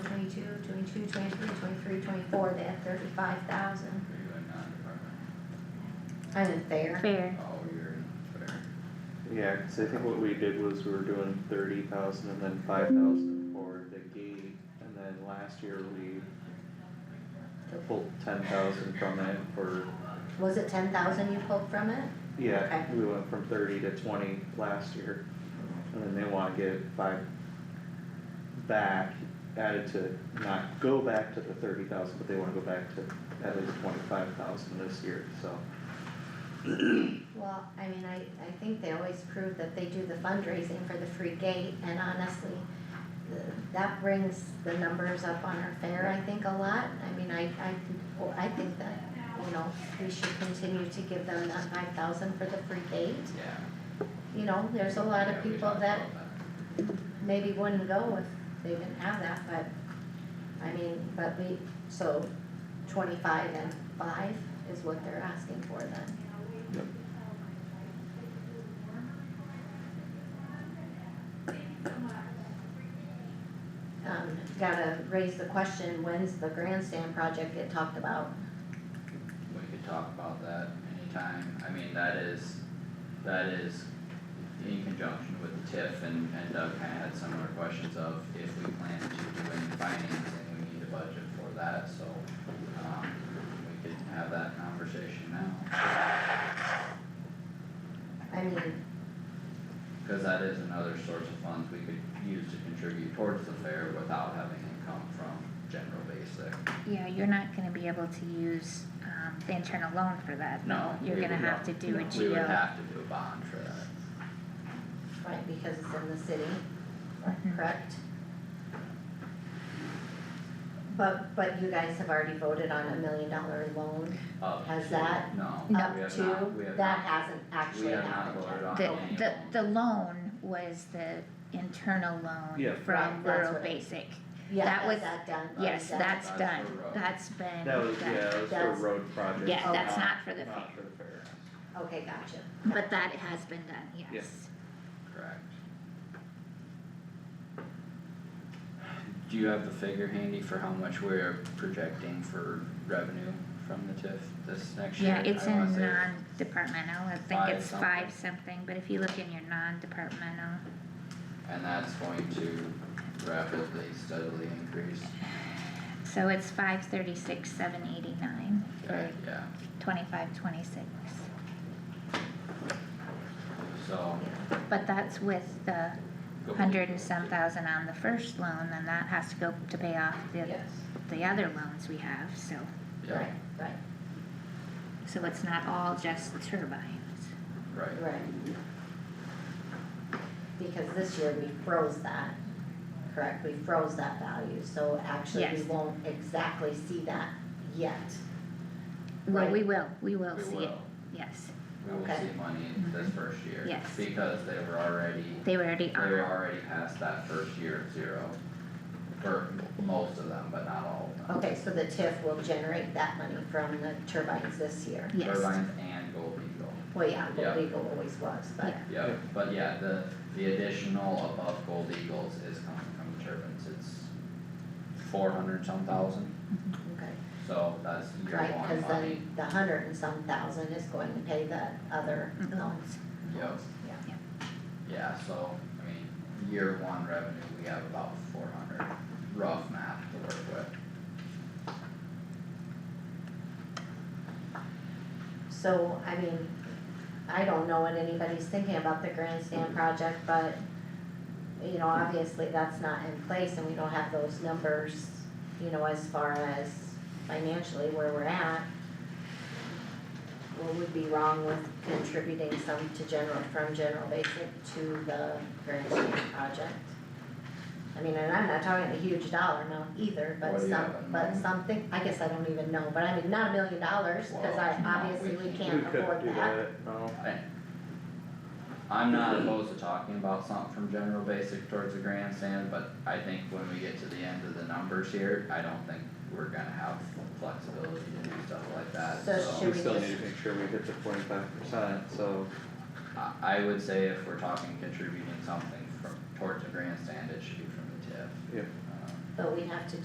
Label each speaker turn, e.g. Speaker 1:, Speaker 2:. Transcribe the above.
Speaker 1: twenty-two, twenty-three, twenty-four, they have thirty-five thousand. Unfair.
Speaker 2: fair,
Speaker 3: all year, fair.
Speaker 4: Yeah, cause I think what we did was we were doing thirty thousand and then five thousand for the gate, and then last year we pulled ten thousand from it for,
Speaker 1: Was it ten thousand you pulled from it?
Speaker 4: yeah,
Speaker 1: Okay.
Speaker 4: we went from thirty to twenty last year. And then they wanna get five back, added to, not go back to the thirty thousand, but they wanna go back to at least twenty-five thousand this year, so.
Speaker 1: Well, I mean, I, I think they always prove that they do the fundraising for the free gate, and honestly, th- that brings the numbers up on our fair, I think, a lot. I mean, I, I, well, I think that, you know, we should continue to give them that five thousand for the free gate.
Speaker 3: Yeah.
Speaker 1: You know, there's a lot
Speaker 3: Yeah,
Speaker 1: of
Speaker 3: we
Speaker 1: people
Speaker 3: talked
Speaker 1: that
Speaker 3: about
Speaker 1: maybe wouldn't go if they didn't have that, but, I mean, but we, so twenty-five and five is what they're asking for then. Um, gotta raise the question, when's the grandstand project get talked about?
Speaker 3: We could talk about that anytime, I mean, that is, that is in conjunction with TIF and, and Doug kinda had similar questions of if we plan to do any financing, we need a budget for that, so, um, we could have that conversation now,
Speaker 1: I mean,
Speaker 3: cause that is another source of funds we could use to contribute towards the fair without having it come from general basic.
Speaker 2: yeah, you're not gonna be able to use, um, the internal loan for that,
Speaker 3: No,
Speaker 2: though, you're
Speaker 3: we
Speaker 2: gonna
Speaker 3: would
Speaker 2: have to
Speaker 3: not-
Speaker 2: do a
Speaker 3: We would
Speaker 2: GO.
Speaker 3: have to do a bond for that.
Speaker 1: right, because it's in the city,
Speaker 2: Mhm.
Speaker 1: correct? But, but you guys have already voted on a million dollar loan
Speaker 3: Up
Speaker 1: Has
Speaker 3: to-
Speaker 1: that-
Speaker 3: Oh. No, we
Speaker 1: up
Speaker 3: have not, we
Speaker 1: to,
Speaker 3: have
Speaker 1: that
Speaker 3: not,
Speaker 1: hasn't
Speaker 3: we
Speaker 1: actually
Speaker 3: have not
Speaker 1: happened
Speaker 3: voted
Speaker 1: yet.
Speaker 3: on
Speaker 2: The,
Speaker 3: any
Speaker 2: the,
Speaker 3: of
Speaker 2: the
Speaker 3: them.
Speaker 2: loan was the internal
Speaker 4: Yeah.
Speaker 2: loan
Speaker 1: Right,
Speaker 2: from
Speaker 1: that's
Speaker 2: rural
Speaker 1: what I-
Speaker 2: basic,
Speaker 1: Yeah,
Speaker 2: that
Speaker 1: is
Speaker 2: was-
Speaker 1: that done? Or
Speaker 2: yes,
Speaker 1: is that-
Speaker 2: that's
Speaker 3: that's
Speaker 2: done,
Speaker 3: for road.
Speaker 2: that's been
Speaker 4: That was,
Speaker 2: done.
Speaker 4: yeah, that was for
Speaker 1: That's-
Speaker 4: road project.
Speaker 2: Yeah, that's
Speaker 1: Okay.
Speaker 2: not for the
Speaker 4: Not
Speaker 2: fair.
Speaker 4: for the fair.
Speaker 1: Okay, gotcha.
Speaker 2: But that has been done, yes.
Speaker 3: Correct. Do you have the figure handy for how much we're projecting for revenue from the TIF this next year?
Speaker 2: Yeah, it's
Speaker 3: I wanna
Speaker 2: in
Speaker 3: say
Speaker 2: non-departmental, I think
Speaker 3: five
Speaker 2: it's
Speaker 3: something.
Speaker 2: five something, but if you look in your non-departmental,
Speaker 3: And that's going to rapidly, steadily increase,
Speaker 2: so it's five thirty-six, seven eighty-nine, or
Speaker 3: Okay, yeah,
Speaker 2: twenty-five, twenty-six.
Speaker 3: so.
Speaker 2: But that's with the
Speaker 3: go-
Speaker 2: hundred and some thousand on the first loan, then that has to go to pay off the,
Speaker 1: Yes,
Speaker 2: the other loans we have, so,
Speaker 3: Yeah,
Speaker 1: right, right,
Speaker 2: so it's not all just turbines.
Speaker 3: right,
Speaker 1: right. Because this year we froze that, correct, we froze that value, so actually we
Speaker 2: Yes.
Speaker 1: won't exactly see that yet.
Speaker 2: Well,
Speaker 1: Right.
Speaker 2: we will, we will
Speaker 3: we
Speaker 2: see it,
Speaker 3: will,
Speaker 2: yes,
Speaker 3: we will
Speaker 1: Okay.
Speaker 3: see money this first year,
Speaker 2: Yes.
Speaker 3: because they were already
Speaker 2: they were already
Speaker 3: They were
Speaker 2: on,
Speaker 3: already past that first year of zero, for most of them, but not all of them.
Speaker 1: Okay, so the TIF will generate that money from the turbines this year.
Speaker 2: yes,
Speaker 3: Turbines and Gold Eagle,
Speaker 1: Well, yeah,
Speaker 3: Yeah.
Speaker 1: well, legal always was, but,
Speaker 2: Yeah.
Speaker 3: yep, but yeah, the, the additional above Gold Eagles is coming from the turbines, it's four hundred some thousand,
Speaker 1: okay,
Speaker 3: so that's year
Speaker 1: right,
Speaker 3: one
Speaker 1: cause
Speaker 3: money,
Speaker 1: then the hundred and some thousand is going to pay the other
Speaker 2: Mm.
Speaker 1: loans,
Speaker 3: yep,
Speaker 1: yeah.
Speaker 3: yeah, so, I mean, year one revenue, we have about four hundred, rough math to work with.
Speaker 1: So, I mean, I don't know what anybody's thinking about the grandstand project, but, you know, obviously that's not in place and we don't have those numbers, you know, as far as financially where we're at. What would be wrong with contributing some to general, from general basic to the grandstand project? I mean, and I'm not talking a huge dollar amount either, but
Speaker 3: What do you
Speaker 1: some,
Speaker 3: have in
Speaker 1: but
Speaker 3: mind?
Speaker 1: something, I guess I don't even know, but I mean, not a million dollars, cause I,
Speaker 3: Well, no,
Speaker 1: obviously
Speaker 3: we
Speaker 1: we
Speaker 3: can't.
Speaker 1: can't afford
Speaker 4: We couldn't do
Speaker 1: that.
Speaker 4: that, no.
Speaker 3: I'm not opposed to talking about something from general basic towards the grandstand, but I think when we get to the end of the numbers here, I don't think we're gonna have flexibility to do stuff like that,
Speaker 1: So
Speaker 3: so.
Speaker 1: should-
Speaker 4: We still need to make sure we hit the twenty-five percent, so,
Speaker 3: I, I would say if we're talking contributing something from, towards the grandstand, it should be from the TIF.
Speaker 4: yeah.
Speaker 3: Um,
Speaker 1: But we have to